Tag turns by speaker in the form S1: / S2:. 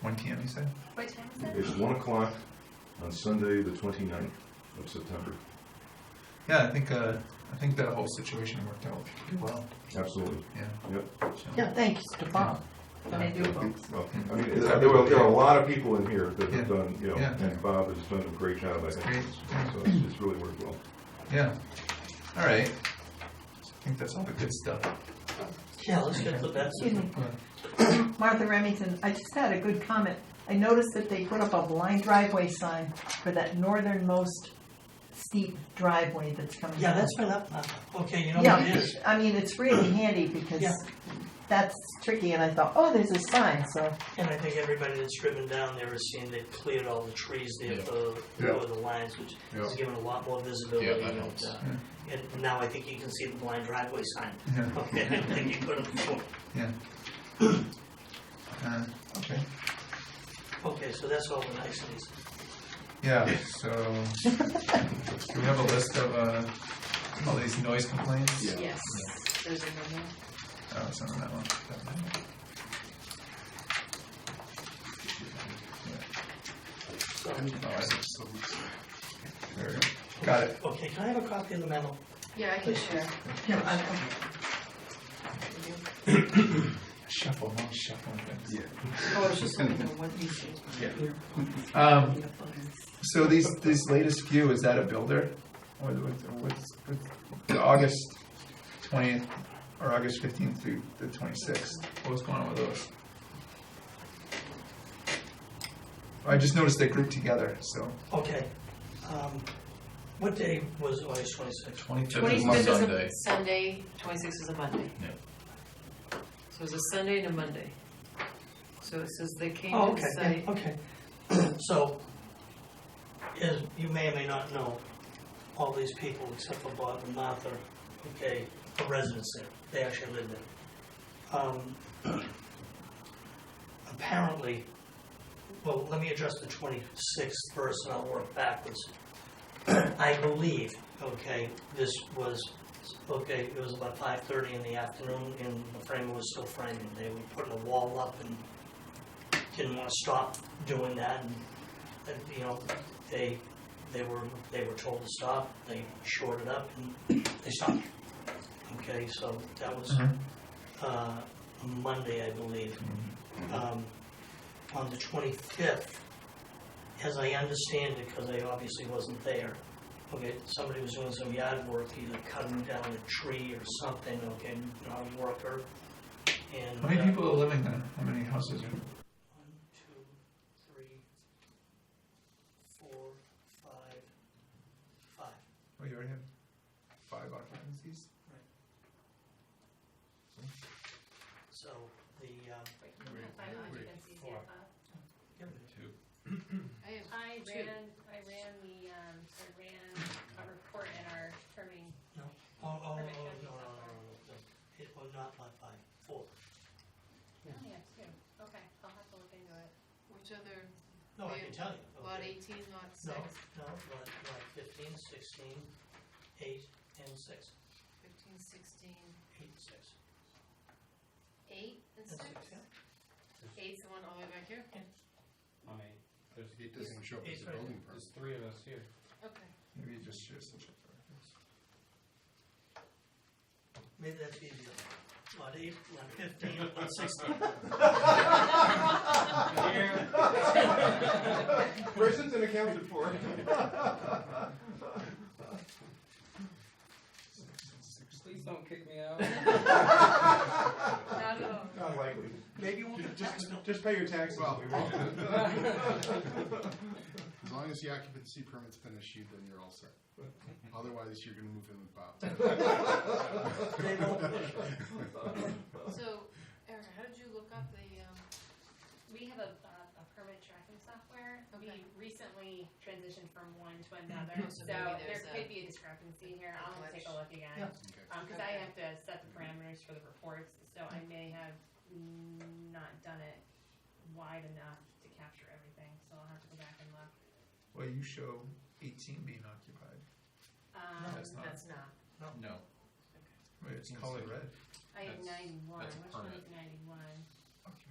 S1: One PM, you said?
S2: What time is it?
S3: It's one o'clock on Sunday, the 29th of September.
S1: Yeah, I think, uh, I think that whole situation worked out pretty well,
S3: Absolutely.
S1: yeah.
S3: Yep.
S1: So-
S4: Yeah, thanks to Bob.
S5: They do both.
S3: Well, I mean, there there are there are a lot of people in here that
S1: Yeah.
S3: have done, you know,
S1: Yeah.
S3: and Bob has done a great job, I think.
S1: Great, yeah.
S3: So it's it's really worked well.
S1: Yeah, all right. I think that's all the good stuff.
S4: Yeah,
S5: Let's get the best.
S4: Excuse me. Martha Remington, I just had a good comment. I noticed that they put up a blind driveway sign for that northernmost steep driveway that's coming
S5: Yeah,
S4: down.
S5: that's my laptop. Okay, you know
S4: Yeah,
S5: what it is?
S4: I mean, it's really handy because
S5: Yeah.
S4: that's tricky and I thought, oh, there's a sign, so,
S5: And I think everybody that's driven down there has seen they've cleared all the trees there for, for the lines, which has given a lot more visibility.
S6: Yeah, that
S5: and,
S6: helps.
S5: uh, And now I think you can see the blind driveway sign.
S1: Yeah.
S5: Okay, I think you couldn't before.
S1: Uh, Okay,
S5: Okay, so that's all the niceties.
S1: yeah, so, do we have a list of, uh, all these noise complaints?
S2: Yes. There's a memo.
S1: Oh, it's not on that one. That one. Yeah. Oh, I see. There we go. Got it.
S5: Okay, can I have a copy of the memo?
S2: Yeah, I can share.
S4: yeah, I-
S1: Shuffle, no shuffling.
S6: Yeah.
S2: Oh, it's just something on one issue.
S1: Um, so these, these latest few, is that a builder? Or the- what's, what's, what's- the August twentieth, or August fifteenth through the twenty-sixth? What was going on with those? I just noticed they grouped together, so.
S5: Okay. Um, What day was August twenty-sixth?
S6: Twenty-fifth is
S2: Twenty-fifth is
S6: Sunday.
S2: a Sunday, twenty-sixth is a Monday.
S6: Yeah.
S2: So it's a Sunday and a Monday. So it says they came
S5: Oh,
S2: to
S5: okay,
S2: the
S5: yeah,
S2: site.
S5: okay. So, as you may or may not know, all these people except for Bob and Martha, okay, are residents there. They actually live there. Um, Apparently, well, let me address the twenty-sixth first and I'll work backwards. I believe, okay, this was, okay, it was about five-thirty in the afternoon and the framer was still framing. They were putting a wall up and didn't want to stop doing that, and, and, you know, they, they were, they were told to stop, they shorted up, and they stopped. Okay, so that was,
S1: Mhm.
S5: uh, Monday, I believe. Um, on the twenty-fifth, as I understand it, because I obviously wasn't there, okay, somebody was doing some yard work, either cutting down a tree or something, okay, not a worker, and.
S1: How many
S5: uh,
S1: people are living there? How many houses are?
S5: one, two, three, four, five, five.
S1: Oh, you already have five occupancies?
S5: So the, um,
S7: I have
S8: I
S7: Two.
S8: ran, I ran the, um, I ran a report in our trimming,
S5: oh, oh, oh, no,
S8: Perfect.
S5: no, no, no, no, no. It was not like five, four.
S8: oh, yeah, two, okay, I'll have to look into it.
S7: Which other,
S5: No, I can tell you. okay.
S7: lot eighteen, lot
S5: No,
S7: six,
S5: no, lot, lot fifteen, sixteen, eight, and six,
S7: fifteen, sixteen,
S5: eight, six.
S8: Eight and six?
S5: and six, yeah.
S7: eight's the one all the way back here?
S9: I, there's,
S6: It doesn't show up as a building permit.
S9: there's three of us here.
S7: Okay.
S1: Maybe you just share some. check
S5: Maybe that's easier. Lot eight, lot fifteen, lot sixteen.
S3: Person's been accounted for.
S9: Please don't kick me out.
S7: Not oh, at all.
S3: Not likely.
S5: Maybe you won't get a tax bill.
S3: Just pay your taxes.
S6: As long as the occupancy permit's been issued, then you're all set. Otherwise, you're gonna move in with Bob.
S5: They won't.
S7: So, Erica, how did you look up the, um,
S8: We have a, uh, a permit tracking software, we
S7: Okay.
S8: recently transitioned from one to another,
S7: Oh, so
S8: so
S7: maybe
S8: there
S7: there's a-
S8: could be a discrepancy here, I'll
S7: glitch.
S8: take a look again.
S5: Yeah.
S6: Okay.
S8: Um, cause I
S7: Okay.
S8: have to set the parameters for the reports, so I may have mm, not done it wide enough to capture everything, so I'll have to go back and look.
S1: Well, you show eighteen being occupied.
S8: Um,
S1: that's not-
S8: that's not.
S9: No.
S1: Wait, it's colored red.
S8: I have
S9: That's-
S8: ninety-one,
S9: that's
S8: which one
S9: permit.
S8: is ninety-one?